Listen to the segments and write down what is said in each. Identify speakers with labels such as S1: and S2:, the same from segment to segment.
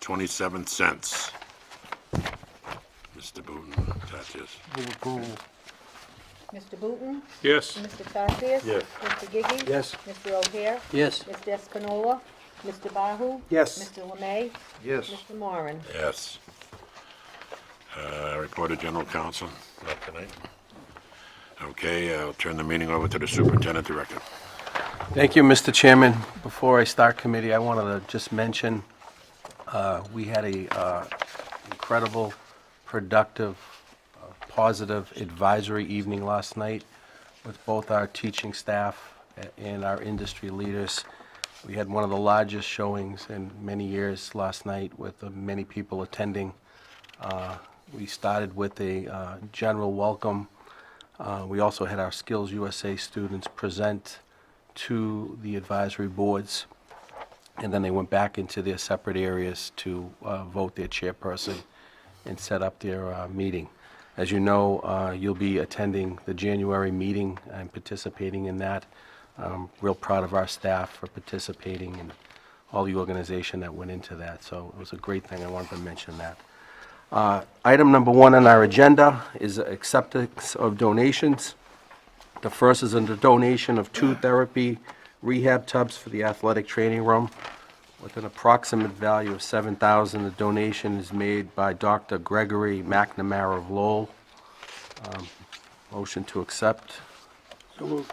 S1: $609.27. Mr. Booton, that's his.
S2: Move approval.
S3: Mr. Booton?
S4: Yes.
S3: Mr. Tatsias?
S1: Yes.
S3: Mr. Gigi?
S2: Yes.
S3: Mr. O'Hare?
S2: Yes.
S3: Mr. Espinola? Mr. Bahu?
S2: Yes.
S3: Mr. Lemay?
S2: Yes.
S3: Mr. Moran?
S1: Yes. Uh, Report of general counsel, not tonight. Okay, I'll turn the meeting over to the superintendent director.
S5: Thank you, Mr. Chairman. Before I start committee, I wanted to just mention, uh, we had a uh, incredible, productive, uh, positive advisory evening last night with both our teaching staff a- and our industry leaders. We had one of the largest showings in many years last night with uh, many people attending. Uh, We started with a uh, general welcome uh, We also had our Skills USA students present to the advisory boards, and then they went back into their separate areas to uh, vote their chairperson and set up their uh, meeting. As you know, uh, you'll be attending the January meeting and participating in that. Um, Real proud of our staff for participating and all the organization that went into that, so it was a great thing. I wanted to mention that. Uh, Item number one on our agenda is acceptance of donations. The first is a donation of two therapy rehab tubs for the athletic training room with an approximate value of $7,000. The donation is made by Dr. Gregory McNamara of Lowell. Um, Motion to accept.
S2: So moved.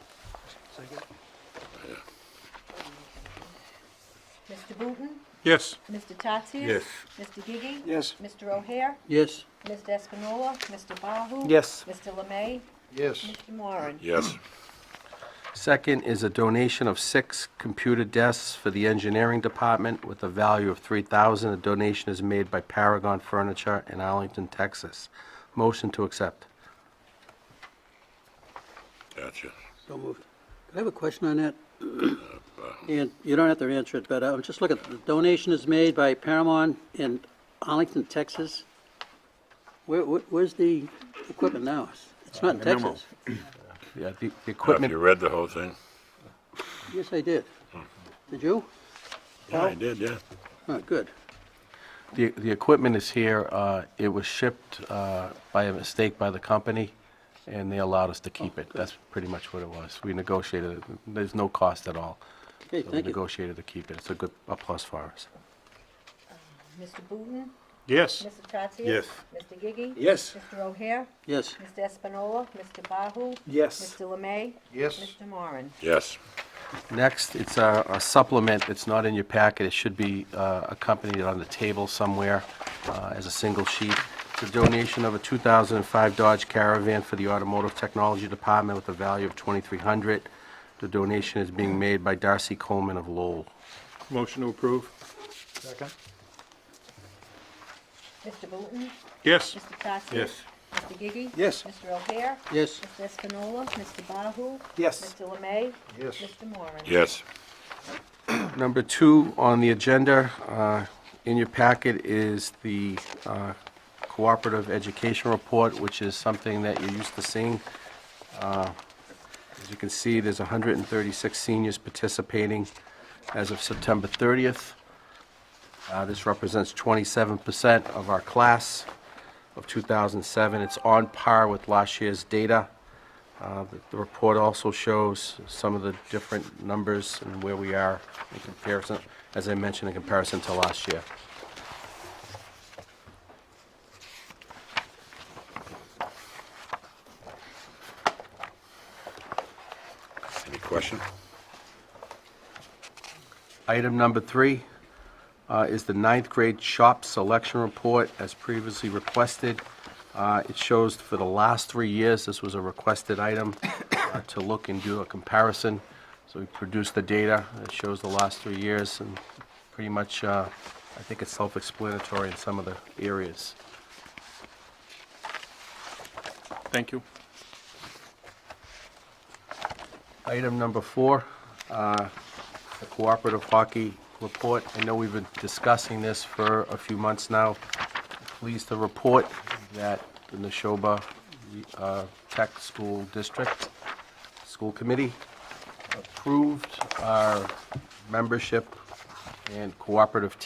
S3: Mr. Booton?
S4: Yes.
S3: Mr. Tatsias?
S1: Yes.
S3: Mr. Gigi?
S2: Yes.
S3: Mr. O'Hare?
S5: Yes.
S3: Mr. Espinola? Mr. Bahu?
S5: Yes.
S3: Mr. Lemay?
S2: Yes.
S3: Mr. Moran?
S1: Yes,
S5: Second is a donation of six computer desks for the engineering department with a value of $3,000. The donation is made by Paragon Furniture in Arlington, Texas. Motion to accept.
S1: gotcha.
S2: So moved. Could I have a question on that? And you don't have to answer it, but I'm just looking, the donation is made by Paramount in Arlington, Texas. Where, where- where's the equipment now? It's not in
S5: Uh,
S2: Texas.
S5: Yeah, the
S1: Have
S5: the
S1: you
S5: equipment,
S1: read the whole thing?
S2: Yes, I did.
S5: Hmm.
S2: Did you?
S1: Yeah, I did, yeah.
S2: Oh, good.
S5: the the equipment is here. uh, It was shipped uh, by a mistake by the company, and they allowed us to keep it. That's pretty much what it was. We negotiated, it. there's no cost at all.
S2: Okay,
S5: So We
S2: thank you.
S5: negotiated to keep it. It's a good, a plus for us.
S3: Mr. Booton?
S4: Yes.
S3: Mr. Tatsias?
S4: Yes.
S3: Mr. Gigi?
S4: Yes.
S3: Mr. O'Hare?
S2: Yes.
S3: Mr. Espinola? Mr. Bahu?
S5: Yes.
S3: Mr. Lemay?
S2: Yes.
S3: Mr. Moran?
S1: Yes,
S5: Next, it's a a supplement that's not in your packet. It should be uh, accompanied on the table somewhere uh, as a single sheet. It's a donation of a 2005 Dodge Caravan for the Automotive Technology Department with a value of 2,300. The donation is being made by Darcy Coleman of Lowell.
S4: Motion to approve.
S3: Mr. Booton?
S4: Yes.
S3: Mr. Tatsias?
S4: Yes.
S3: Mr. Gigi?
S2: Yes.
S3: Mr. O'Hare?
S2: Yes.
S3: Mr. Espinola, Mr. Bahu?
S2: Yes.
S3: Mr. Lemay?
S2: Yes.
S3: Mr. Moran?
S1: yes,
S5: Number two on the agenda, uh, in your packet is the uh, Cooperative Education Report, which is something that you're used to seeing. Uh, As you can see, there's 136 seniors participating as of September 30th. Uh, This represents 27% of our class of 2007. It's on par with last year's data. Uh, The the report also shows some of the different numbers and where we are in comparison, as I mentioned, in comparison to last year.
S1: any question?
S5: Item number three uh, is the ninth grade shop selection report as previously requested. Uh, It shows for the last three years, this was a requested item uh, to look and do a comparison. So we produced the data, it shows the last three years, and pretty much, uh, I think it's self-explanatory in some of the areas.
S4: Thank you.
S5: Item number four, uh, the cooperative hockey report. I know we've been discussing this for a few months now. Pleased to report that the Neshoba uh, Tech School District School Committee approved our membership and cooperative